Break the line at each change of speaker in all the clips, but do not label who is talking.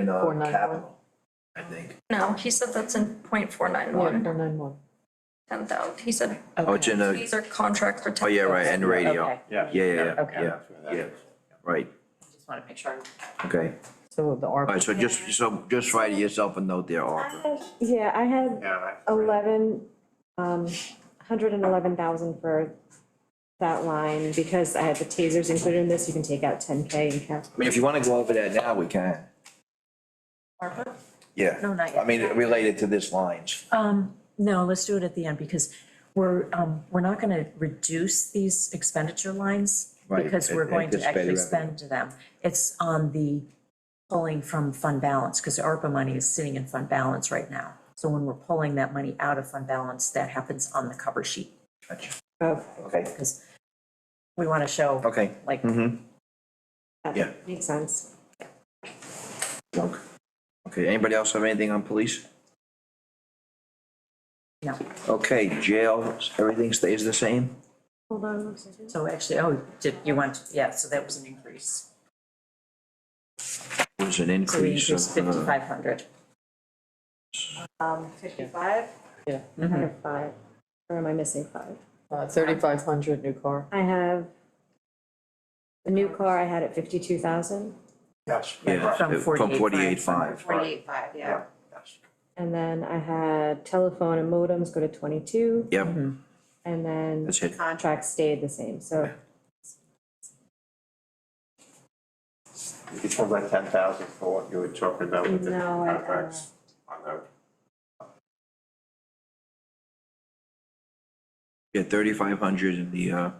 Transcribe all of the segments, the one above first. in uh,
Four nine one.
capital, I think.
No, he said that's in point four nine
Yeah,
one,
four nine one.
ten thousand, he said
Oh, it's in the,
these are contracts for ten
oh,
thousand.
yeah, right, and radio.
Okay.
Yeah, yeah, yeah,
Okay.
yeah, yeah, right,
Just wanna make sure.
okay.
So the
All right,
ARPA,
so just, so just write yourself a note there, Arthur.
Yeah, I had eleven, um, hundred and eleven thousand for that line, because I had the tasers included in this, you can take out ten K and cap.
I mean, if you wanna go over that now, we can.
ARPA?
Yeah.
No, not yet.
I mean, related to this lines.
Um, no, let's do it at the end because we're, um, we're not gonna reduce these expenditure lines
Right,
because we're
and-
going to
anticipated
actually
revenue.
spend them. It's on the pulling from fund balance, because ARPA money is sitting in fund balance right now. So when we're pulling that money out of fund balance, that happens on the cover sheet,
Gotcha.
Okay,
Oh, Okay,
because we wanna show.
okay.
Like,
Mm-hmm.
that
Yeah.
makes sense.
Okay, anybody else have anything on police?
no,
Okay, jail, everything stays the same?
Hold on one second.
so actually, oh, did, you want, yeah, so that was an increase.
There's an
So we
increase of.
increased
uh,
fifty-five hundred.
Um, fifty-five,
yeah,
I have five, or am I missing five?
uh, thirty-five hundred new car.
I have the new car I had at fifty-two thousand,
Yes.
Yeah,
From
uh, from
48.5.
forty-eight five.
Forty-eight-five, yeah.
and then I had telephone and modems go to twenty-two,
Yep,
and then
that's it.
contracts stayed the same, so
It's more like ten thousand for what you were talking about with the
No, I uh, don't
contracts. on the-
Yeah, thirty-five hundred in the, uh,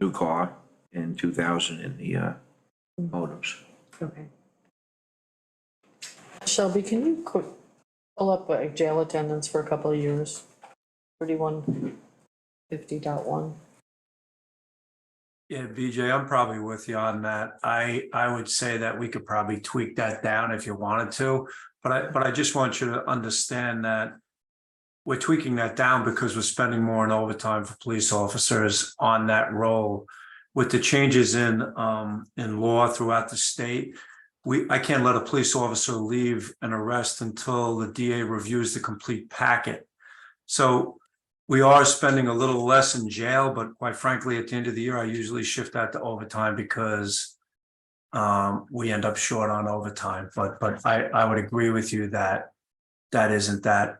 new car and two thousand in the, uh, modems.
Okay.
Shelby, can you quick pull up uh, jail attendance for a couple of years? Thirty-one fifty dot one.
Yeah, BJ, I'm probably with you on that. I, I would say that we could probably tweak that down if you wanted to. But I, but I just want you to understand that we're tweaking that down because we're spending more in overtime for police officers on that role. With the changes in, um, in law throughout the state, we, I can't let a police officer leave an arrest until the DA reviews the complete packet. So we are spending a little less in jail, but quite frankly, at the end of the year, I usually shift that to overtime because um, we end up short on overtime, but, but I, I would agree with you that that isn't that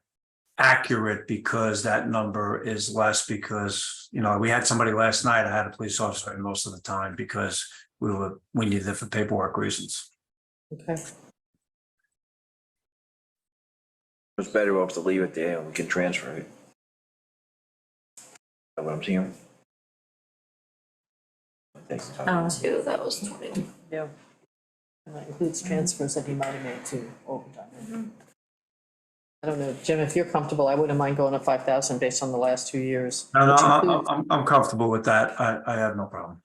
accurate because that number is less because, you know, we had somebody last night, I had a police officer in most of the time because we were, we needed it for paperwork reasons.
Okay,
It's better off to leave it there and we can transfer it. Know what I'm seeing? I think so.
Oh,
Two, that was twenty.
yeah. And that includes transfers that he might have made to overtime. I don't know, Jim, if you're comfortable, I wouldn't mind going to five thousand based on the last two years.
No, no,
which
I'm,
includes-
I'm- I'm, I'm comfortable with that. I, I have no problem.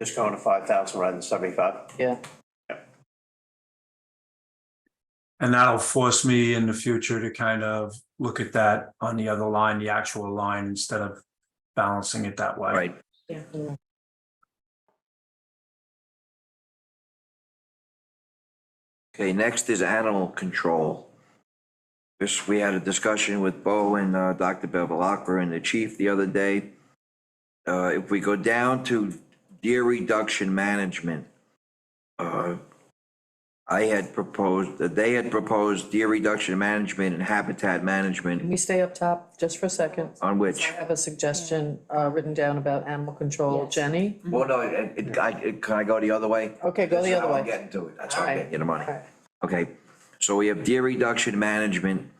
Just going to five thousand rather than seventy-five.
Yeah,
And that'll force me in the future to kind of look at that on the other line, the actual line, instead of balancing it that way.
Right, okay, next is animal control. This, we had a discussion with Bo and, uh, Dr. Bevelacqua and the chief the other day. Uh, if we go down to deer reduction management, uh, I had proposed, they had proposed deer reduction management and habitat
can
management
we stay up top just for a second?
on which.
I have a suggestion uh, written down about animal control.
Yes.
Jenny?
Well, no, it, it, I, it, can I go the other way?
Okay, go the
That's
other
how I'm
way.
getting to it, that's how I'm
Alright.
getting you the money.
Alright.
Okay, so we have deer reduction management,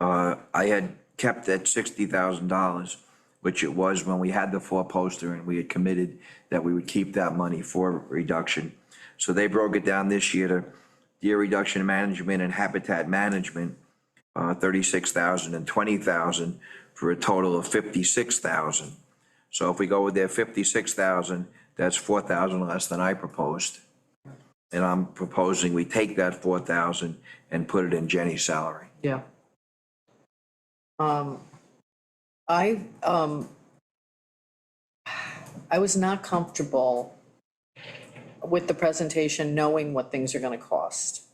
uh, I had kept at sixty thousand dollars, which it was when we had the four poster and we had committed that we would keep that money for reduction. So they broke it down this year to deer reduction management and habitat management, uh, thirty-six thousand and twenty thousand for a total of fifty-six thousand. So if we go with their fifty-six thousand, that's four thousand less than I proposed. And I'm proposing we take that four thousand and put it in Jenny's salary.
Yeah. Um, I, um, I was not comfortable with the presentation knowing what things are gonna cost.